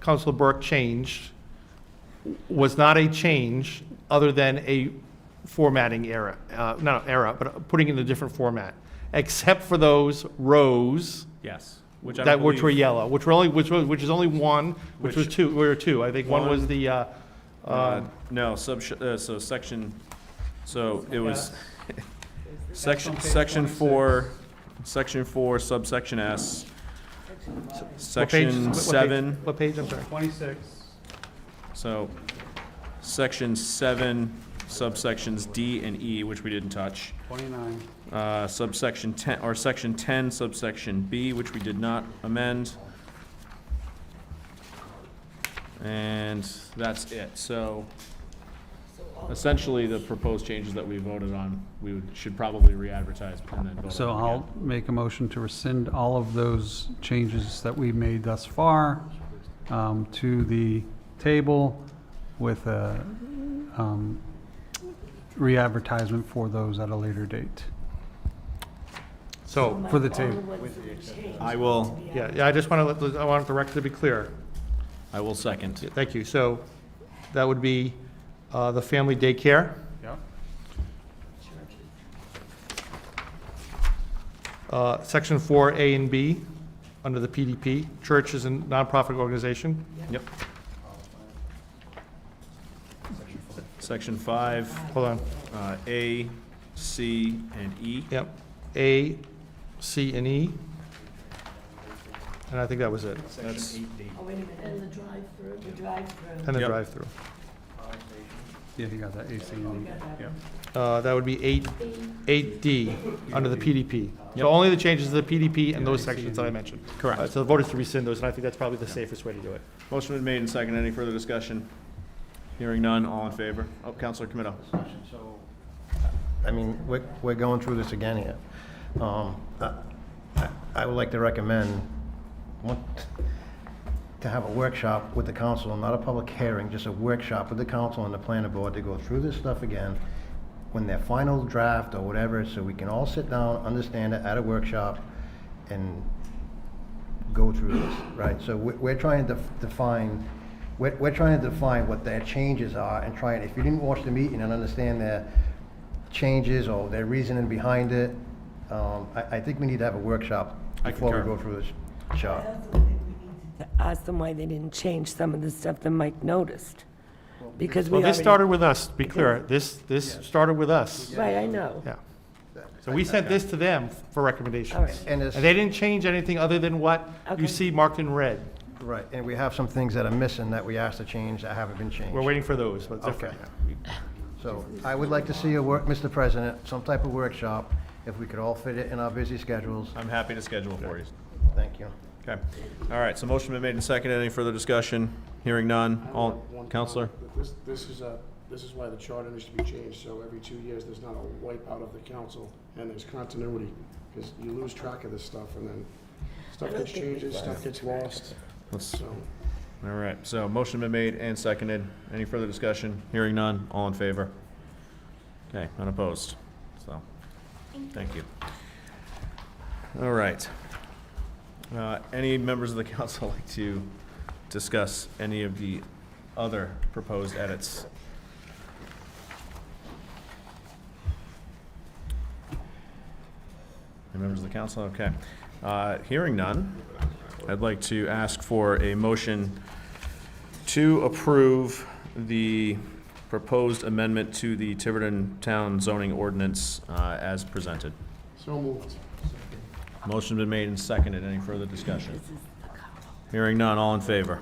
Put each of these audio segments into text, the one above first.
Council Burke changed was not a change other than a formatting error, uh, not an error, but putting it in a different format, except for those rows Yes, which I that, which were believe, yellow, which were only, which was, which is only one, which was Which- two, were two. I think one was One. the, uh, uh, uh, no, sub, uh, so section, so it was That's on section, page section 26. four, section four, subsection S, what page- what section page- seven, What page, I'm sorry? Twenty-six, so section seven, subsections D and E, which we didn't touch. twenty-nine, uh, subsection 10, or section 10 subsection B, which we did not amend. And that's it. So essentially, the proposed changes that we voted on, we would- should probably re-advertise and then vote on them So again. I'll make a motion to rescind all of those changes that we made thus far um, to the table with a um, re-advertisement for those at a later date. So, For the table. I will, yeah, yeah, I just want to let, I want the record to be clear. I will second. Thank you. So that would be, uh, the family daycare, Yep. uh, section four A and B, under the PDP, church is a nonprofit organization. Yep. Section 5, Hold on, uh, A, C, and E. yep, A, C, and E. And I think that was it, That's, Oh, wait a minute, and the drive-through, the drive-through. and the Yep. drive-through. Yeah, you got that AC We on. got that. Uh, That would be eight, eight D, under the PDP. Yep. So only the changes to the PDP and those sections that I mentioned. correct. Uh, So the voters to rescind those, and I think that's probably the safest way to do it. Motion been made and second. Any further discussion? Hearing none, all in favor? Oh, Counselor Camino. So, I mean, we're, we're going through this again here. Um, I- I I would like to recommend, one- to have a workshop with the council, not a public hearing, just a workshop with the council and the planning board to go through this stuff again when their final draft or whatever, so we can all sit down, understand it at a workshop and go through this, right? So we- we're trying to define, we're, we're trying to define what their changes are and trying, if you didn't watch the meeting and understand their changes or their reasoning behind it, um, I, I think we need to have a workshop I before we concur. go through this shop. To Ask them why they didn't change some of the stuff that Mike noticed, because we Well, already. this started with us, to be clear. This, this started with us. Right, I know. Yeah. So we sent this to them for All recommendations. right. And And it's, they didn't change anything other than what Okay. you see marked in red. right, and we have some things that are missing that we asked to change that haven't been changed. We're waiting for those, but it's different. Okay. So I would like to see a work, Mr. President, some type of workshop, if we could all fit it in our busy schedules. I'm happy to schedule for you. Thank you. Okay. All right, so motion been made and second. Any further discussion? Hearing none, all, Counselor? This, this is a, this is why the charter needs to be changed, so every two years, there's not a wipeout of the council, and there's continuity, because you lose track of this stuff, and then stuff I don't gets think we changes, stuff gets lost, Let's, so. all right, so motion been made and seconded. Any further discussion? Hearing none, all in favor? Okay, unopposed, so, thank you. All right. Uh, Any members of the council like to discuss any of the other proposed edits? Any members of the council? Okay. Uh, Hearing none, I'd like to ask for a motion to approve the proposed amendment to the Tiverton Town zoning ordinance uh, as presented. So moved. Motion been made and seconded. Any further discussion? This is the color. Hearing none, all in favor?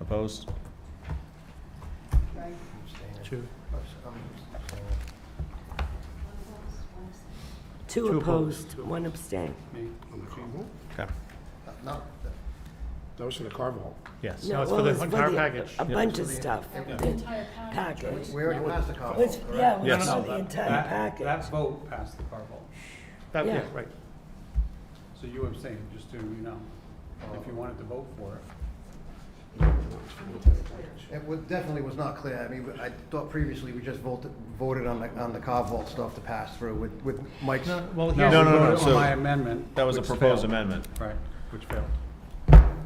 Opposed? Two. Two Two opposed, one abstain. On the carve-out? Okay. That was for the carve-out. Yes. No, it's for well, the entire package. A bunch of stuff, the package. We already passed the call. Was- Yeah, it was Yes. for the entire That package. that vote passed the car vote. That- yeah, Yeah. right. So you abstained, just so you know, if you wanted to vote for it. It wa- definitely was not clear. I mean, I thought previously we just voted, voted on the, on the Carvalt stuff to pass through with, with Mike's. Well, No, here's, No, no, no, we voted so- on my amendment. That was a which proposed failed. amendment. Right, which failed.